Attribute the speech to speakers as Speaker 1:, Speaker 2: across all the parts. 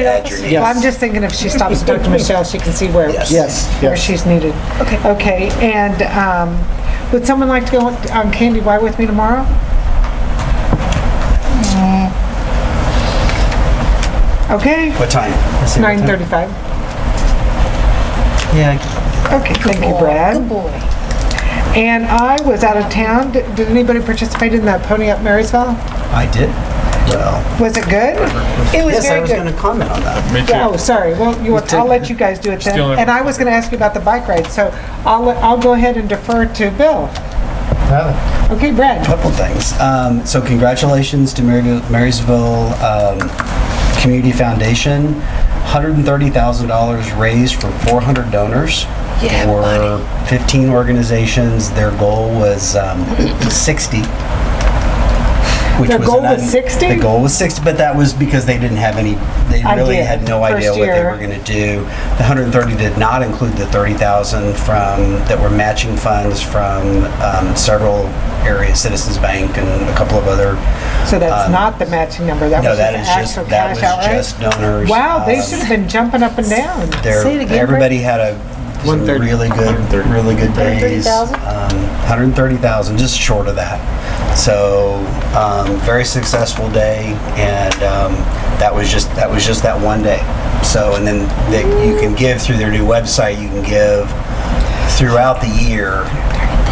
Speaker 1: Add your name.
Speaker 2: Yes.
Speaker 3: Well, I'm just thinking if she stops to talk to Michelle, she can see where,
Speaker 2: Yes,
Speaker 3: where
Speaker 2: yes.
Speaker 3: she's needed. Okay. Okay, and um, would someone like to go on on Candy Y with me tomorrow? Mm. Okay,
Speaker 1: What time?
Speaker 3: it's 9:35.
Speaker 1: Yeah.
Speaker 3: Okay, thank you, Brad. Good boy. And I was out of town. Did did anybody participate in the Pony Up Marysville?
Speaker 1: I did. Well,
Speaker 3: Was it good?
Speaker 4: It was
Speaker 1: yes, I
Speaker 4: very
Speaker 1: was
Speaker 4: good.
Speaker 1: going to comment on that.
Speaker 5: Me too.
Speaker 3: Oh, sorry. Well, you, I'll let you guys do it then.
Speaker 5: Still in-
Speaker 3: And I was going to ask you about the bike ride, so I'll, let- I'll go ahead and defer to Bill. Okay, Brad.
Speaker 1: Couple things. Um, so congratulations to Maryville- Marysville um, Community Foundation. $130,000 raised for 400 donors
Speaker 4: Yeah,
Speaker 1: for 15 organizations. Their goal was um, 60. Which
Speaker 3: Their
Speaker 1: was
Speaker 3: goal
Speaker 1: an
Speaker 3: was
Speaker 1: un-
Speaker 3: 60?
Speaker 1: The goal was 60, but that was because they didn't have any, they really
Speaker 3: Idea.
Speaker 1: had no
Speaker 3: First
Speaker 1: idea what they
Speaker 3: year.
Speaker 1: were going to do. The 130 did not include the 30,000 from, that were matching funds from um, several areas, Citizens Bank and a couple of other.
Speaker 3: So that's
Speaker 1: um,
Speaker 3: not the matching number. That
Speaker 1: No,
Speaker 3: was
Speaker 1: that
Speaker 3: just
Speaker 1: is just,
Speaker 3: the actual
Speaker 1: that was
Speaker 3: cash outlay.
Speaker 1: just donors.
Speaker 3: Wow, they
Speaker 1: Um,
Speaker 3: should have been jumping up and down.
Speaker 1: there,
Speaker 4: Say it again,
Speaker 1: everybody had a some
Speaker 5: 130.
Speaker 1: really good,
Speaker 5: 130.
Speaker 1: really good days.
Speaker 4: 130,000?
Speaker 1: Um, 130,000, just short of that. So um, very successful day, and um, that was just that was just that one day. So and then that you can give through their new website. You can give throughout the year.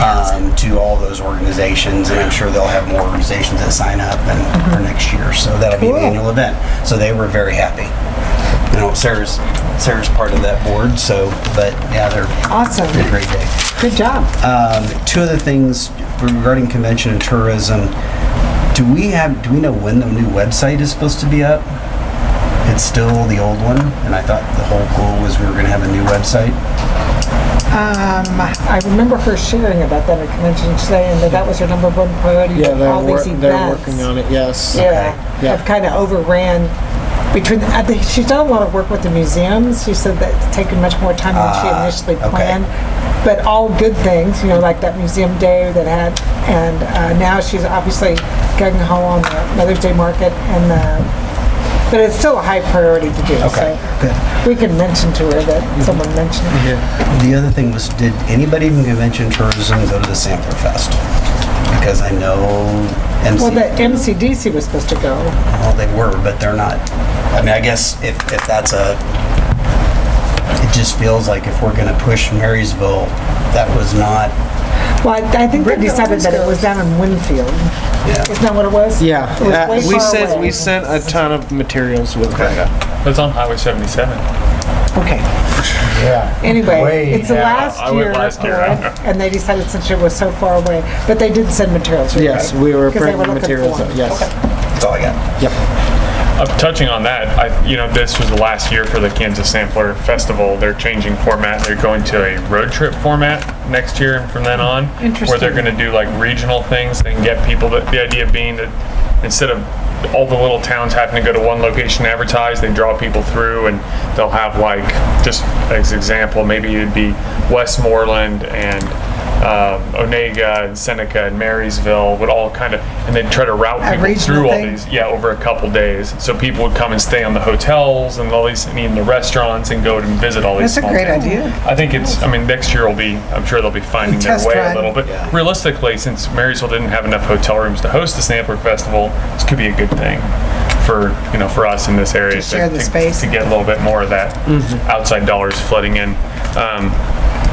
Speaker 1: Um, to all those organizations, and I'm sure they'll have more organizations that sign up and
Speaker 4: Mm-hmm.
Speaker 1: for next year. So that'll be
Speaker 3: Cool.
Speaker 1: an annual event. So they were very happy you know, Sarah's, Sarah's part of that board, so, but yeah, they're
Speaker 3: Awesome.
Speaker 1: a great day.
Speaker 3: Good job.
Speaker 1: Um, two other things regarding convention and tourism. Do we have, do we know when the new website is supposed to be up? It's still the old one, and I thought the whole goal was we were gonna have a new website.
Speaker 3: Um, I remember her sharing about that at convention today and that that was her number one priority
Speaker 2: Yeah,
Speaker 3: for
Speaker 2: they're,
Speaker 3: all these
Speaker 2: wor-
Speaker 3: events.
Speaker 2: they're working on it, yes.
Speaker 3: Yeah,
Speaker 2: Yeah.
Speaker 3: I've kind of overran between, I think she's done a lot of work with the museums. She said that it's taken much more time than she
Speaker 1: Ah,
Speaker 3: initially
Speaker 1: okay.
Speaker 3: planned. But all good things, you know, like that museum day that had, and uh, now she's obviously gung ho on the Mother's Day market and the, but it's still a high priority to do.
Speaker 1: Okay,
Speaker 3: So
Speaker 1: good.
Speaker 3: we can mention to her that someone mentioned. it.
Speaker 1: The other thing was, did anybody from convention and tourism go to the Sampler Fest? Because I know MC.
Speaker 3: Well, the MCDC was supposed to go.
Speaker 1: Well, they were, but they're not. I mean, I guess if, if that's a, it just feels like if we're gonna push Marysville, that was not,
Speaker 3: Well, I I think they
Speaker 4: Brenda
Speaker 3: decided
Speaker 4: always
Speaker 3: that it
Speaker 4: goes.
Speaker 3: was down in Winfield.
Speaker 1: yeah.
Speaker 3: Isn't that what it was?
Speaker 2: Yeah,
Speaker 3: It was
Speaker 2: uh,
Speaker 3: way
Speaker 2: we
Speaker 3: far
Speaker 2: sent,
Speaker 3: away.
Speaker 2: we sent a ton of materials with
Speaker 1: Okay.
Speaker 2: Brenda.
Speaker 5: That's on Highway 77.
Speaker 3: Okay.
Speaker 6: Yeah.
Speaker 3: Anyway,
Speaker 6: Way
Speaker 3: it's the
Speaker 6: out.
Speaker 3: last year.
Speaker 5: I went last year, I
Speaker 3: alright,
Speaker 5: know.
Speaker 3: And they decided since it was so far away, but they did send materials. right?
Speaker 2: Yes, we were
Speaker 3: 'Cause they were
Speaker 2: printing
Speaker 3: looking
Speaker 2: materials,
Speaker 3: for 'em.
Speaker 2: yes.
Speaker 1: That's all I got.
Speaker 2: Yep,
Speaker 5: Uh, touching on that, I, you know, this was the last year for the Kansas Sampler Festival. They're changing format. They're going to a road trip format next year and from then on. Where
Speaker 3: Interesting.
Speaker 5: they're going to do like regional things and get people, that, the idea being that instead of all the little towns having to go to one location to advertise, they draw people through and they'll have like, just as example, maybe it'd be Westmoreland and um, Onega and Seneca and Marysville would all kind of, and they'd try to route
Speaker 3: A
Speaker 5: people
Speaker 3: regional
Speaker 5: through all
Speaker 3: thing?
Speaker 5: these yeah, over a couple days. So people would come and stay on the hotels and all these, and eat in the restaurants and go and visit all these.
Speaker 3: That's a
Speaker 5: small
Speaker 3: great
Speaker 5: towns.
Speaker 3: idea.
Speaker 5: I think it's. I mean, next year will be. I'm sure they'll be finding their
Speaker 3: Test
Speaker 5: way
Speaker 3: run.
Speaker 5: a little bit.
Speaker 1: Yeah.
Speaker 5: Realistically, since Marysville didn't have enough hotel rooms to host the Sampler Festival, this could be a good thing for you know for us in this area to,
Speaker 3: share the
Speaker 5: to-
Speaker 3: space.
Speaker 5: to get a little bit more of that
Speaker 1: Mm-hmm.
Speaker 5: outside dollars flooding in. Um,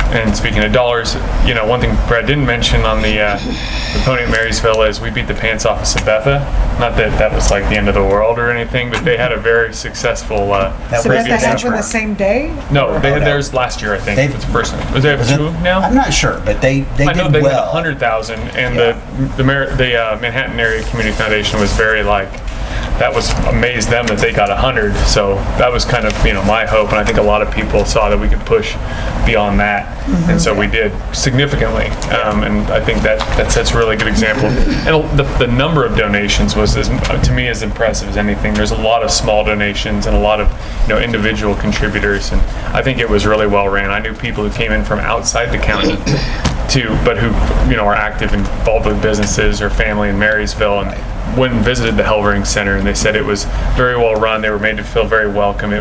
Speaker 5: and speaking of dollars, you know, one thing Brad didn't mention on the, uh, the pony at Marysville is we beat the pants off of Sabetha. Not that that was like the end of the world or anything, but they had a very successful. Uh,
Speaker 1: That
Speaker 3: So
Speaker 1: was Pretty
Speaker 3: that they
Speaker 1: good
Speaker 3: have on
Speaker 1: benchmark.
Speaker 3: the same day?
Speaker 5: no, they had
Speaker 1: no.
Speaker 5: theirs last year, I think.
Speaker 1: They've-
Speaker 5: It's the first. Was there
Speaker 1: Was it-
Speaker 5: two now?
Speaker 1: I'm not sure, but they, they
Speaker 5: I know
Speaker 1: did
Speaker 5: they had
Speaker 1: well.
Speaker 5: 100,000,
Speaker 1: Yeah.
Speaker 5: and the the, Mar- the uh, Manhattan Area Community Foundation was very like that was amazed them that they got 100. So that was kind of you know my hope, and I think a lot of people saw that we could push beyond that,
Speaker 1: Mm-hmm.
Speaker 5: and so we did significantly. Um, and I think that that sets a really good example. And the, the number of donations was as, to me as impressive as anything. There's a lot of small donations and a lot of you know individual contributors, and I think it was really well ran. I knew people who came in from outside the county to, but who, you know, are active, involved with businesses or family in Marysville, and went and visited the Hellring Center, and they said it was very well run. They were made to feel very welcome. It